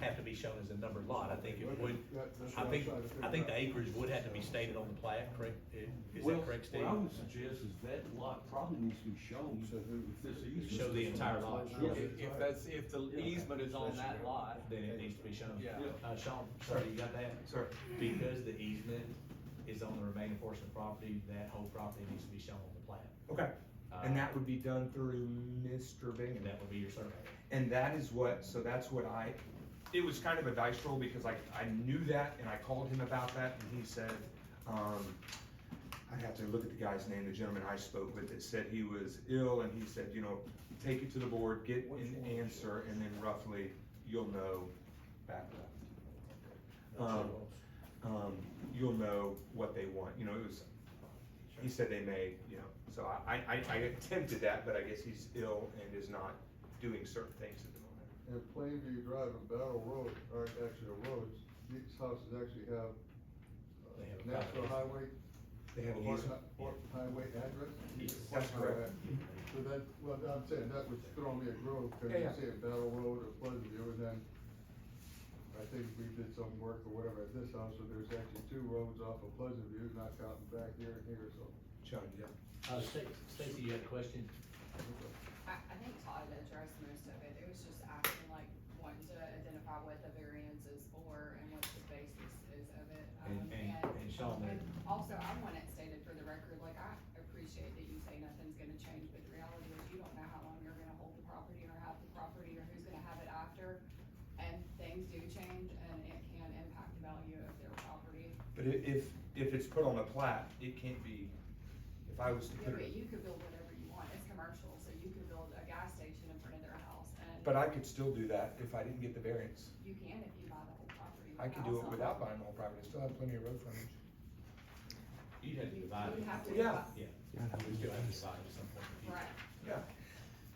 have to be shown as a numbered lot, I think it would, That- that's I what I'm think, trying to figure I think out. the acreage would have to be stated on the plat, correct? Is Well, that correct, Steve? What I would suggest is that lot probably needs to be shown So who- if this easement. Show the entire lot. Yeah. If, if that's, if the easement is on that lot, Then it needs to be shown. Yeah. Uh, Sean, sorry, you got that? Sir. Because the easement is on the remaining portion of property, that whole property needs to be shown on the plat. Okay, Uh, and that would be done through Mr. Bingham. And that would be your survey. And that is what, so that's what I, it was kind of a dice roll because I, I knew that and I called him about that and he said, um, I have to look at the guy's name, the gentleman I spoke with that said he was ill and he said, you know, take it to the board, get an answer and then roughly you'll know back left. Um, um, you'll know what they want, you know, it was, he said they may, you know, so I, I, I attempted that, but I guess he's ill and is not doing certain things at the moment. And Plainview Drive and Battle Road aren't actually roads, these houses actually have uh, They have a National property. Highway. They have an Horse- easement. Horse Highway address. Yes. That's Horse highway correct. address. So that, well, I'm saying that would throw me a groove, cause you Yeah, yeah. say a Battle Road or Plainview, and then I think we did some work or whatever at this house, so there's actually two roads off of Pleasantview, not counting back here and here, so. John, yeah. Uh, Stacy, Stacy, you had a question? I, I think Todd addressed most of it, it was just asking like, wanting to identify what the variance is for and what the basis is of it. And, um, and, and Sean, And that- also, I want it stated for the record, like, I appreciate that you say nothing's gonna change, but the reality is you don't know how long you're gonna hold the property or have the property or who's gonna have it after. And things do change and it can impact the value of their property. But i- if, if it's put on a plat, it can't be, if I was to Yeah, put but it, you could build whatever you want, it's commercial, so you could build a gas station in front of their house and. but I could still do that if I didn't get the variance. You can if you buy the whole property. I could do it without buying the whole property, I still have plenty of road frontage. you'd have to divide You it. have to. Yeah. Yeah. You'd still have to divide it at some point. Right,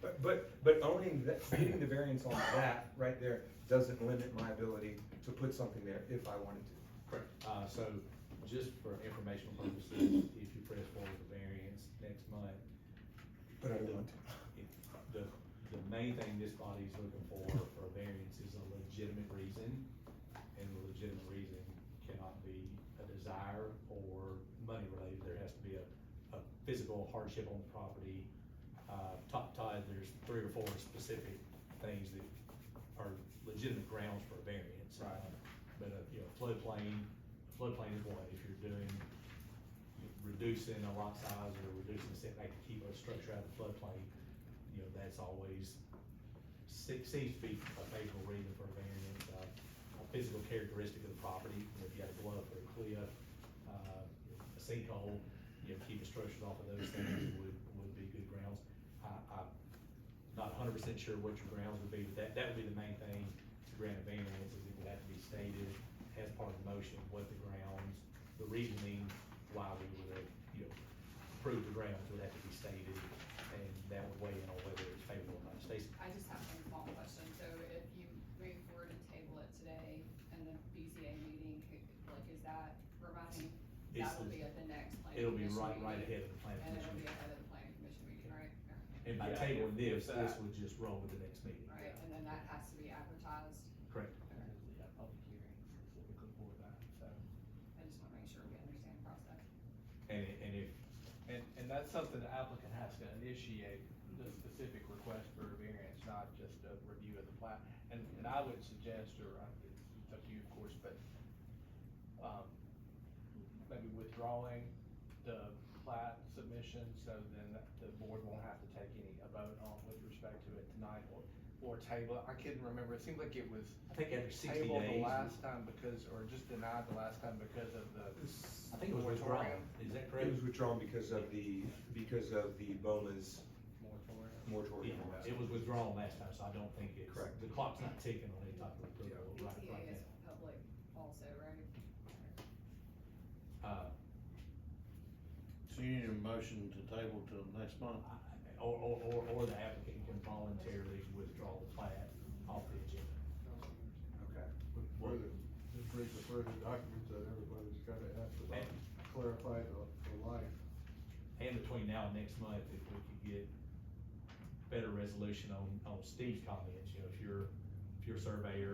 But, but, but owning that, getting the variance on that right there doesn't limit my ability to put something there if I wanted to. Correct. Uh, so just for informational purposes, if you press forward the variance next month, But I don't want to. the, the main thing this body's looking for, for a variance is a legitimate reason. And the legitimate reason cannot be a desire or money related, there has to be a, a physical hardship on the property. Uh, top tide, there's three or four specific things that are legitimate grounds for a variance. Right. But, uh, you know, floodplain, floodplain is one, if you're doing, reducing a lot size or reducing the setback to keep a structure out of the floodplain, you know, that's always, se- seems to be a favorable reason for a variance, uh, a physical characteristic of the property, you know, if you had a bluff or a cliff, uh, a sinkhole, you know, keeping structures off of those things would, would be good grounds. I, I'm not hundred percent sure what your grounds would be, but that, that would be the main thing to grant a variance, is it would have to be stated as part of the motion, what the grounds, the reasoning why we would have, you know, approved the grounds would have to be stated, and that would weigh in on whether it's favorable or not. Stacy? I just have one small question, so if you move forward and table it today in the BCA meeting, could- like, is that, remind me, It's that will the- be at the next planning It'll be commission right, right meeting, ahead of the planning And it'll be commission. ahead of the planning commission meeting, right? And by Yeah, tabling if- this, if this that- would just roll with the next meeting. Right, and then that has to be advertised, Correct. I just wanna make sure we understand the process. And, i- and if, and, and that's something the applicant has to initiate, the specific request for a variance, not just a review of the plat. And, and I would suggest, or I- it's up to you, of course, but, um, maybe withdrawing the plat submission, so then the board won't have to take any, a vote on with respect to it tonight, or, or table. it. I couldn't remember, it seemed like it was I think after sixty tabled the days, I last time because, or just denied the last time because of the think it was withdrawn, is that correct? It was withdrawn because of the, because of the Boma's moratorium. Yeah, moratorium. it was withdrawn last time, so I don't think it's, Correct. the clock's not ticking on any type of approval right, right BCA now. is public also, right? Uh, So you need a motion to table till next month? I- Or, or, or, or the applicant can voluntarily withdraw the plat off the agenda. Okay. But further, just read the further documents that everybody's gotta ask about, clarify the, the line. And between now and next month, if we could get better resolution on, on Steve's comments, you know, if you're, if you're a surveyor